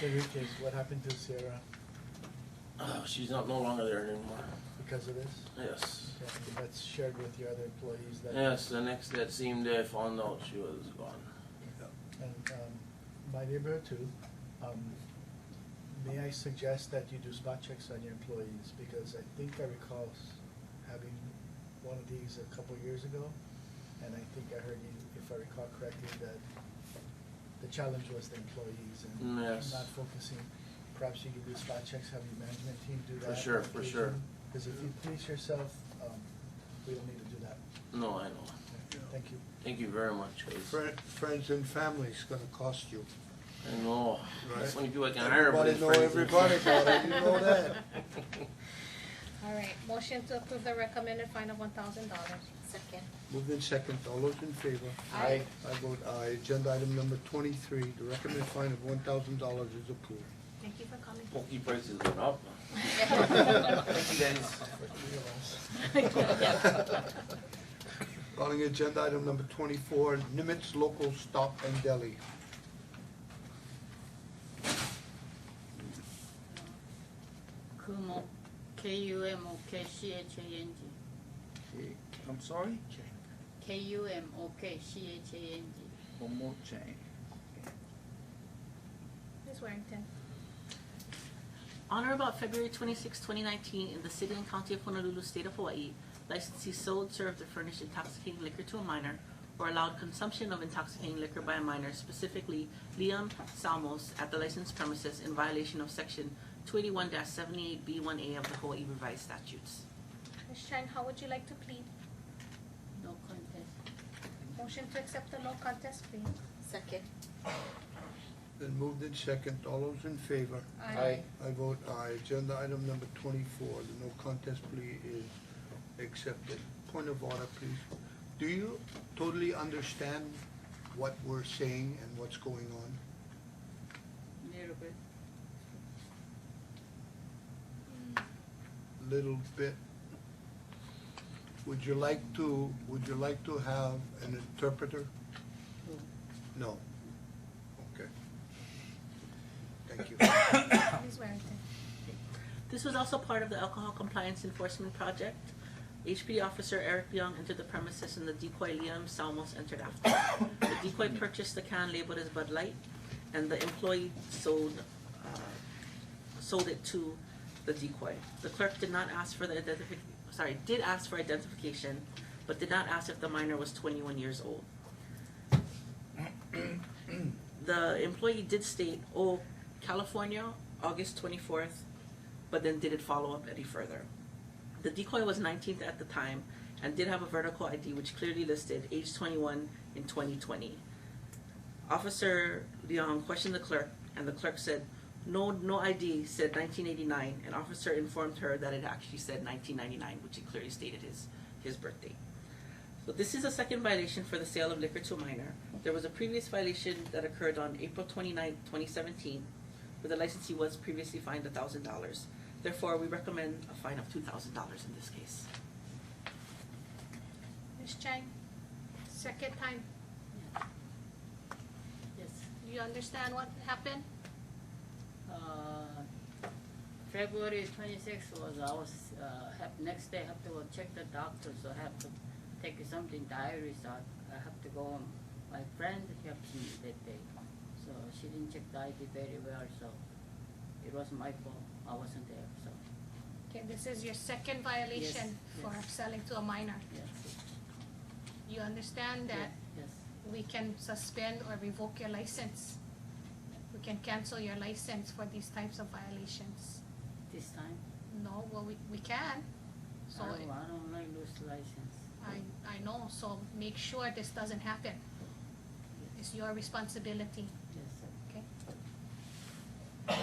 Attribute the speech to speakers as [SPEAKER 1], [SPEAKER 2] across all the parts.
[SPEAKER 1] So Rick, is what happened to Sierra
[SPEAKER 2] Oh, she's not no longer there anymore.
[SPEAKER 1] because of this?
[SPEAKER 2] Yes.
[SPEAKER 1] Okay, That's shared with your other employees that.
[SPEAKER 2] Yes, the next that same day I found out she was gone.
[SPEAKER 1] And um, my neighborhood too. Um, May I suggest that you do spot checks on your employees? Because I think I recall s- having one of these a couple years ago. And I think I heard you, if I recall correctly, that the challenge was the employees and
[SPEAKER 2] Mm, yes.
[SPEAKER 1] not focusing. Perhaps you could do spot checks, have your management team do
[SPEAKER 2] For
[SPEAKER 1] that.
[SPEAKER 2] sure, for sure.
[SPEAKER 1] Because if you police yourself, um, we don't need to do that.
[SPEAKER 2] No, I know.
[SPEAKER 1] Okay,
[SPEAKER 3] Yeah.
[SPEAKER 1] Thank you.
[SPEAKER 2] Thank you very much. 'cause
[SPEAKER 3] Fri- Friends and family's gonna cost you.
[SPEAKER 2] I know. That's
[SPEAKER 3] Right.
[SPEAKER 2] only people I can hire. but
[SPEAKER 3] Everybody know
[SPEAKER 2] it's friends and-
[SPEAKER 3] everybody, brother, you know that.
[SPEAKER 4] All right, motion to approve the recommended fine of one thousand dollars.
[SPEAKER 5] Second.
[SPEAKER 3] Moved in second, all those in favor?
[SPEAKER 4] Aye.
[SPEAKER 3] I vote aye. Agenda item number twenty-three, the recommended fine of one thousand dollars is approved.
[SPEAKER 4] Thank you for coming.
[SPEAKER 2] Pokey prices went up. Thank you guys.
[SPEAKER 3] Calling agenda item number twenty-four, Nimitz Local Stop and Deli.
[SPEAKER 6] Kumo, K U M O K C H A N G.
[SPEAKER 7] I'm sorry?
[SPEAKER 6] K U M O K C H A N G.
[SPEAKER 7] One more change.
[SPEAKER 4] Ms. Warrington,
[SPEAKER 8] On or about February 26, 2019, in the city and county of Honolulu, state of Hawaii, licensees sold, served, or furnished intoxicating liquor to a minor or allowed consumption of intoxicating liquor by a minor, specifically Liam Salmos, at the licensed premises in violation of Section 281-78B1A of the Hawaii Revised Statutes.
[SPEAKER 4] Ms. Chang, how would you like to plead?
[SPEAKER 6] No contest.
[SPEAKER 4] Motion to accept the no contest plea.
[SPEAKER 5] Second.
[SPEAKER 3] Then moved in second, all those in favor?
[SPEAKER 4] Aye.
[SPEAKER 3] I vote aye. Agenda item number twenty-four, the no contest plea is accepted. Point of order, please. Do you totally understand what we're saying and what's going on?
[SPEAKER 6] Little bit.
[SPEAKER 3] Little bit. Would you like to, would you like to have an interpreter?
[SPEAKER 6] Who?
[SPEAKER 3] No. Okay. Thank you.
[SPEAKER 4] Ms. Warrington,
[SPEAKER 8] This was also part of the Alcohol Compliance Enforcement Project. HPD officer Eric Young entered the premises and the decoy Liam Salmos entered after. The decoy purchased the can labeled as Bud Light and the employee sold, uh, sold it to the decoy. The clerk did not ask for the identific, sorry, did ask for identification, but did not ask if the minor was twenty-one years old. The employee did state, oh, California, August twenty-fourth, but then didn't follow up any further. The decoy was 19th at the time and did have a vertical ID which clearly listed age 21 in 2020. Officer Leong questioned the clerk, and the clerk said, "No, no ID said 1989." An officer informed her that it actually said 1999, which it clearly stated his his birthday. So this is a second violation for the sale of liquor to a minor. There was a previous violation that occurred on April 29, 2017, where the licensee was previously fined thousand dollars. Therefore, we recommend a fine of two thousand dollars in this case.
[SPEAKER 4] Ms. Chang, second time,
[SPEAKER 6] Yes.
[SPEAKER 4] you understand what happened?
[SPEAKER 6] Uh, February twenty-sixth was, I was, uh, have, next day have to go check the doctor, so I have to take something diary, so I, I have to go on. My friend helped me that day, so she didn't check the ID very well, so it was my fault, I wasn't there, so,
[SPEAKER 4] Okay, this is your second violation
[SPEAKER 6] Yes,
[SPEAKER 4] for
[SPEAKER 6] yes.
[SPEAKER 4] selling to a minor.
[SPEAKER 6] yes.
[SPEAKER 4] You understand that
[SPEAKER 6] Yes,
[SPEAKER 4] we can suspend or revoke your license. We can cancel your license for these types of violations.
[SPEAKER 6] this time.
[SPEAKER 4] No, well, we, we can. So,
[SPEAKER 6] I don't, I don't like lose license.
[SPEAKER 4] I, I know, so make sure this doesn't happen. It's your responsibility,
[SPEAKER 6] Yes, sir.
[SPEAKER 4] okay?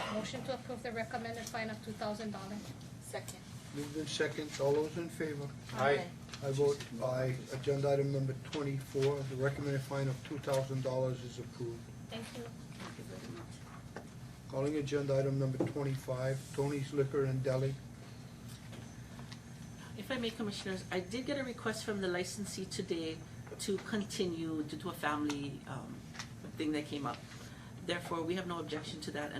[SPEAKER 4] Motion to approve the recommended fine of two thousand dollars.
[SPEAKER 5] Second.
[SPEAKER 3] Moved in second, all those in favor?
[SPEAKER 5] Aye.
[SPEAKER 3] I vote aye. Agenda item number twenty-four, the recommended fine of two thousand dollars is approved.
[SPEAKER 4] Thank you.
[SPEAKER 6] Thank you very much.
[SPEAKER 3] Calling agenda item number twenty-five, Tony's Liquor and Deli.
[SPEAKER 8] If I may, Commissioners, I did get a request from the licensee today to continue due to a family um, thing that came up. Therefore, we have no objection to that